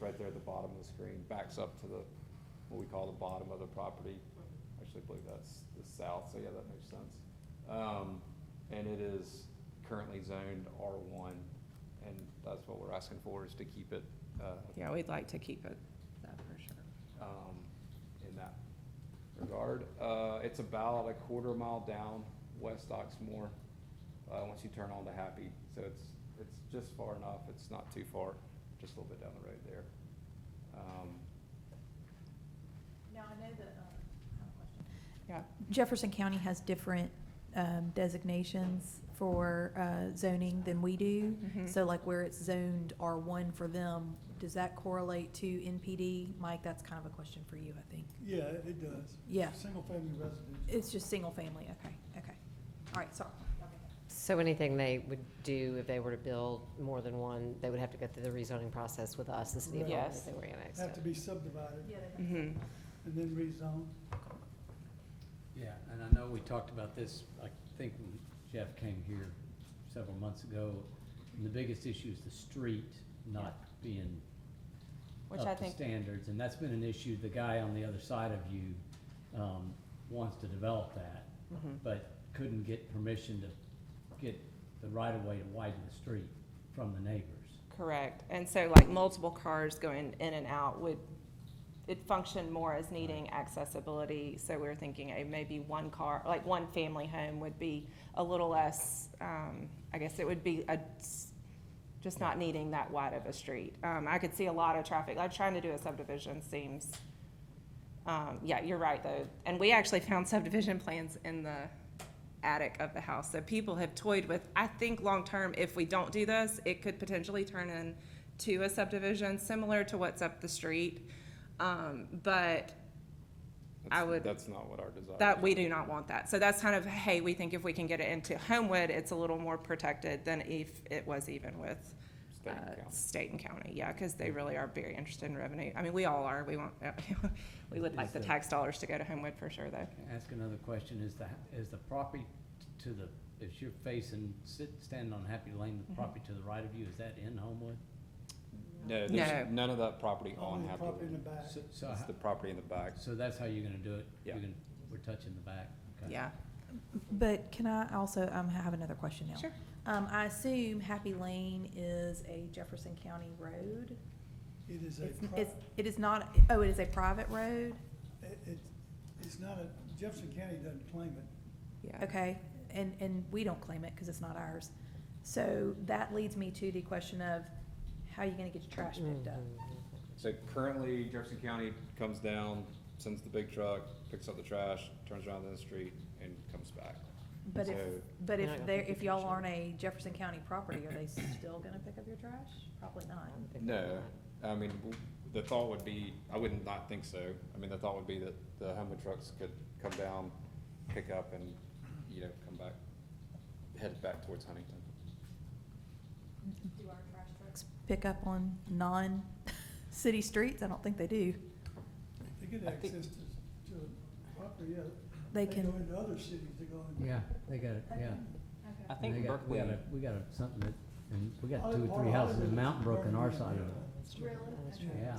right there at the bottom of the screen, backs up to the, what we call the bottom of the property. Actually, I believe that's the south, so yeah, that makes sense. Um, and it is currently zoned R one, and that's what we're asking for, is to keep it, uh, Yeah, we'd like to keep it, that for sure. um, in that regard. Uh, it's about a quarter mile down West Oxmoor, uh, once you turn on to Happy. So it's, it's just far enough, it's not too far, just a little bit down the road there. Um, Now, I know that, um, I have a question. Yeah. Jefferson County has different um, designations for uh, zoning than we do. Mhm. So like where it's zoned R1 for them, does that correlate to NPD? Mike, that's kind of a question for you, I think. Yeah, it does. Yeah. Single-family residential. It's just single family, okay, okay. All right, sorry. So anything they would do if they were to build more than one, they would have to go through the rezoning process with us, the city of Right. Harlem, Yes. if they were annexed. Have to in. be subdivided Yeah, they- Mhm. and then rezoned. Yeah, and I know we talked about this, I think when Jeff came here several months ago, and the biggest issue is the street not being Which I up to think, standards, and that's been an issue, the guy on the other side of you, um, wants to develop that, Mhm. but couldn't get permission to get the right of way to widen the street from the neighbors. correct. And so like multiple cars going in and out would, it functioned more as needing accessibility. So we were thinking eh, maybe one car, like one family home would be a little less, um, I guess it would be a, just not needing that wide of a street. Um, I could see a lot of traffic, like trying to do a subdivision seems, um, yeah, you're right though. And we actually found subdivision plans in the attic of the house. So people have toyed with, I think long-term, if we don't do this, it could potentially turn into a subdivision similar to what's up the street. Um, but I that's- would- That's not what our desire is. that, we do not want that. So that's kind of, hey, we think if we can get it into Homewood, it's a little more protected than if it was even with State and uh, county. state and county, yeah, because they really are very interested in revenue. I mean, we all are, we want, we would like Is the the- tax dollars to go to Homewood for sure, though. Can I Ask another question, is the, is the property to the, if you're facing, sit, standing on Happy Lane, Mm-hmm. the property to the right of you, is that in Homewood? No, there's none of that property on Only Oh, Happy property in the Lane. back. So, so It's how- the property in the back. So that's how you're gonna do it? You're Yeah. gonna- We're touching the back? Okay. Yeah, But can I also, um, I have another question now. sure. Um, I assume Happy Lane is a Jefferson County road? It is a, It's, pri- it's, it is not, oh, it is a private road? it, it's- it's not a, Jefferson County doesn't claim it. Yeah. Okay, and, and we don't claim it because it's not ours. So that leads me to the question of, how are you gonna get your trash Mm-hmm. picked up? So currently Jefferson County comes down, sends the big truck, picks up the trash, turns around in the street and comes back. But if, So- but They're if not gonna they're, pick if your y'all trash up. aren't a Jefferson County property, are they still gonna pick up your trash? Probably not. No, I mean, w- the thought would be, I wouldn't not think so. I mean, the thought would be that the Hummer trucks could come down, pick up and, you know, come back, head back towards Huntington. Do our trash trucks? Pick up on non-city streets? I don't think they do. They get I think- access to, to a property, yeah. They go can, into other cities, they go into. Yeah, they got it, yeah. I And think they got- Berkeley, We got, a- we got a- something that, and we got Other two, or part three of houses in Hollywood is Mountain Brook on our property. side of it. Really? Yeah. I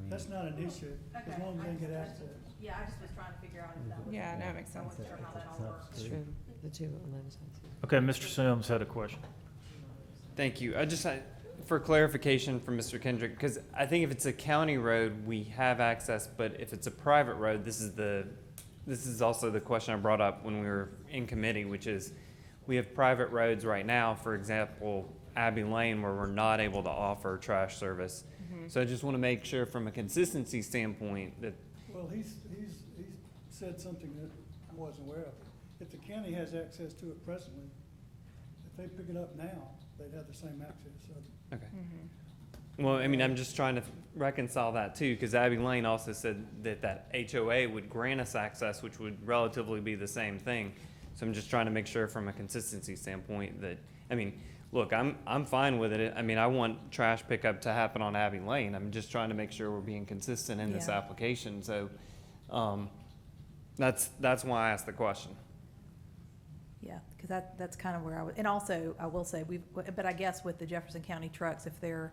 mean, That's not an issue, as Okay, long I as they get just- access. Yeah, I just was trying to figure out if that was- Yeah, no, it makes it's sense. a- it's a tough It's street. true, the two on the other side. Okay, Mr. Sims had a question. Thank you. I just, I- for clarification from Mr. Kendrick, because I think if it's a county road, we have access, but if it's a private road, this is the, this is also the question I brought up when we were in committee, which is, we have private roads right now, for example, Abbey Lane, where we're not able to offer trash service. So I just want to make sure from a consistency standpoint that, Well, he's, he's, he's said something that I wasn't aware of. If the county has access to it presently, if they pick it up now, they'd have the same access, so okay. Mm-hmm. Well, I mean, I'm just trying to reconcile that too, because Abbey Lane also said that that HOA would grant us access, which would relatively be the same thing. So I'm just trying to make sure from a consistency standpoint that, I mean, look, I'm, I'm fine with it. I mean, I want trash pickup to happen on Abbey Lane. I'm just trying to make sure we're being consistent in this Yeah. application, so, um, that's, that's why I asked the question. Yeah, because that, that's kind of where I was, and also, I will say, we've, but I guess with the Jefferson County trucks, if they're